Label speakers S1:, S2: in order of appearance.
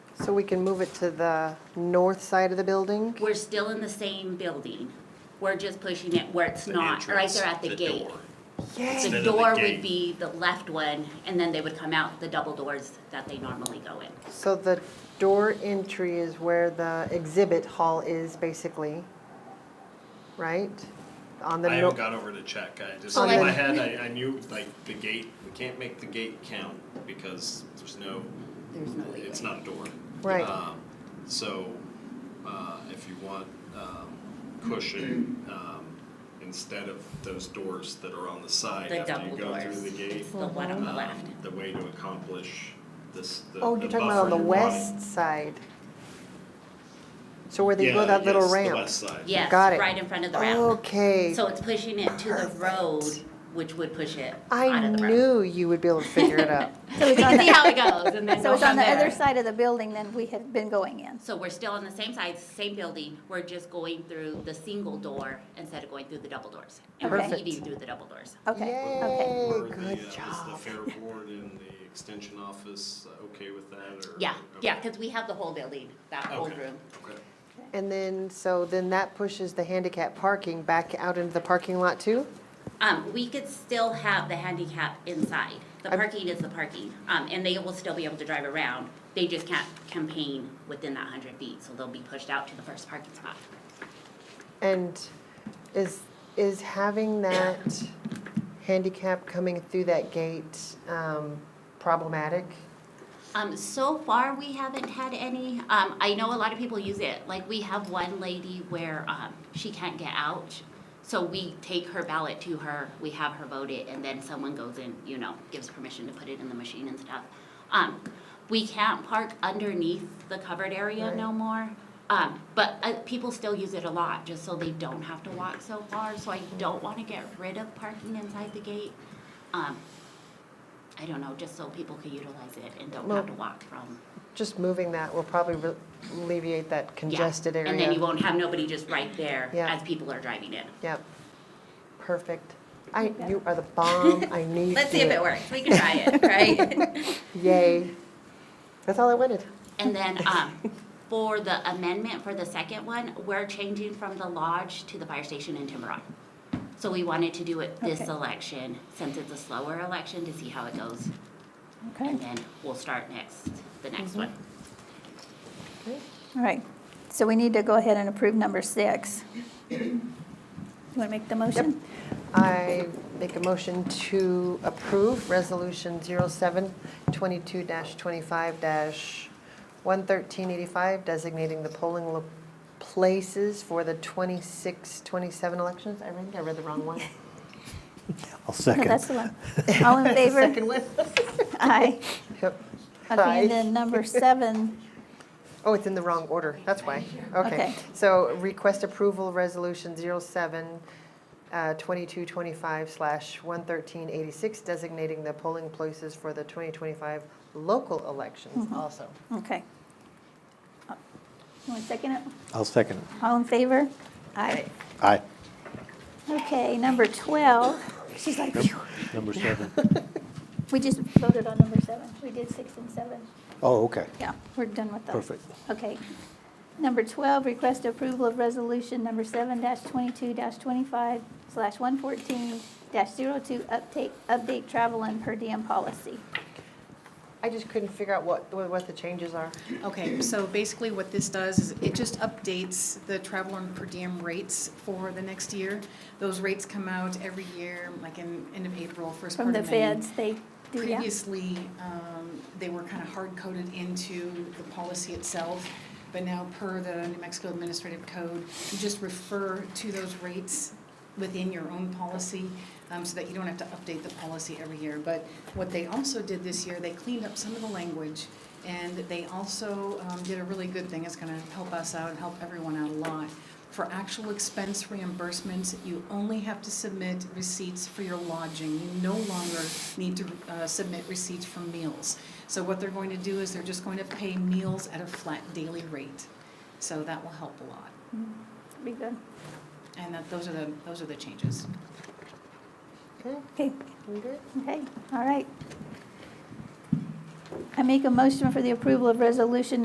S1: So we can move it to the north side of the building?
S2: We're still in the same building. We're just pushing it where it's
S3: The
S2: not, right
S3: entrance,
S2: there at the gate.
S3: door.
S1: Yay.
S3: Instead
S2: The
S3: of the
S2: door would
S3: gate.
S2: be the left one, and then they would come out the double doors that they normally go in.
S1: So the door entry is where the exhibit hall is basically, right? On the.
S3: I
S1: no-
S3: haven't got over to check, I just,
S2: Oh,
S1: So
S3: in my
S1: like-
S3: head, I, I knew, like, the gate, we can't make the gate count, because there's no,
S2: There's no leeway.
S3: it's not a door.
S1: Right.
S3: Um, So, uh, if you want, um, cushion, um, instead of those doors that are on the side
S2: The
S3: after you
S2: double
S3: go through
S2: doors.
S3: the gate.
S2: It's the one on the
S3: um,
S2: left.
S3: The way to accomplish this, the, the
S1: Oh, you're talking about on
S3: buffer
S1: the
S3: you wanted.
S1: west side? So where they
S3: Yeah,
S1: go that little
S3: yes, the
S1: ramp?
S3: west side.
S2: Yes,
S1: Got it.
S2: right in front of the ramp.
S1: Okay.
S2: So it's pushing it to the road, which would push it out
S1: I
S2: of the road.
S1: knew you would be able to figure it out.
S4: So it's on
S2: See
S4: the,
S2: how it goes, and then
S4: so
S2: go
S4: it's on
S2: from
S4: the other
S2: there.
S4: side of the building than we had been going in.
S2: So we're still on the same side, same building, we're just going through the single door instead of going through the double doors. And we're
S4: Perfect.
S2: leaving through the double doors.
S4: Okay, okay.
S1: Yay,
S3: Were the, uh,
S1: Oh, good
S3: Is the
S1: job.
S3: fair board and the extension office uh, okay with that, or?
S2: Yeah,
S3: okay.
S2: yeah, because we have the whole building, that whole
S3: Okay,
S2: room.
S3: okay.
S1: And then, so then that pushes the handicap parking back out into the parking lot too?
S2: Um, we could still have the handicap inside. The
S1: I'm-
S2: parking is the parking, um, and they will still be able to drive around. They just can't campaign within that hundred feet, so they'll be pushed out to the first parking spot.
S1: And is, is having that handicap coming through that gate um, problematic?
S2: Um, so far, we haven't had any. Um, I know a lot of people use it. Like, we have one lady where, um, she can't get out. So we take her ballot to her, we have her vote it, and then someone goes in, you know, gives permission to put it in the machine and stuff. Um, we can't park underneath the covered area
S1: Right.
S2: no more. Um, but, uh, people still use it a lot, just so they don't have to walk so far. So I don't wanna get rid of parking inside the gate. Um, I don't know, just so people can utilize it and don't have to walk from.
S1: Just moving that will probably re- alleviate that
S2: yeah.
S1: congested area.
S2: And then you won't have nobody just right there
S1: Yeah.
S2: as people are driving in.
S1: Yep, perfect. I, you are the bomb, I knew you
S2: Let's
S1: could
S2: see if
S1: do
S2: it works, we can try it, right?
S1: Yay. That's all I wanted.
S2: And then, um, for the amendment for the second one, we're changing from the lodge to the fire station in Tiburon. So we wanted to do it this
S4: Okay.
S2: election, since it's a slower election, to see how it goes. And then we'll start next, the
S1: Mm-hmm.
S2: next one.
S4: All right. So we need to go ahead and approve number six. You want to make the motion?
S1: I make a motion to approve Resolution 07-22-25-11385, designating the polling lo- places for the 26, 27 elections. I think I read the wrong one.
S5: I'll
S4: No, that's
S5: second.
S4: the one. All in favor?
S1: Second one.
S4: Aye.
S1: Yep.
S4: Okay,
S1: Aye.
S4: and then number seven,
S1: Oh, it's in the wrong order, that's why. Okay.
S4: Okay.
S1: So request approval, Resolution 07, uh, 2225 slash 11386, designating the polling places for the 2025 local elections also.
S4: okay. You want to second it?
S5: I'll second it.
S4: All in favor? Aye.
S5: Aye.
S4: Okay, number 12. She's like, phew.
S5: Number seven.
S4: we just voted on number seven. We did six and seven.
S5: Oh, okay.
S4: Yeah, we're done with those.
S5: Perfect.
S4: Okay. Number 12, request approval of resolution number 7-22-25/114-02, slash 114-02, uptake, update travel and per diem policy.
S1: I just couldn't figure out what, what the changes are.
S6: Okay, so basically what this does is it just updates the travel and per diem rates for the next year. Those rates come out every year, like in, end of April, first part
S4: From
S6: of May.
S4: the feds, they do that.
S6: Previously, um, they were kind of hard-coded into the policy itself, but now per the New Mexico Administrative Code, you just refer to those rates within your own policy, um, so that you don't have to update the policy every year. But what they also did this year, they cleaned up some of the language, and they also um, did a really good thing, it's gonna help us out and help everyone out a lot. For actual expense reimbursements, you only have to submit receipts for your lodging. You no longer need to uh, submit receipts for meals. So what they're going to do is they're just going to pay meals at a flat daily rate. So that will help a lot.
S4: Mm-hmm. Be good.
S6: And that, those are the, those are the changes.
S1: Okay,
S4: Okay,
S1: we good?
S4: okay, all right. I make a motion for the approval of resolution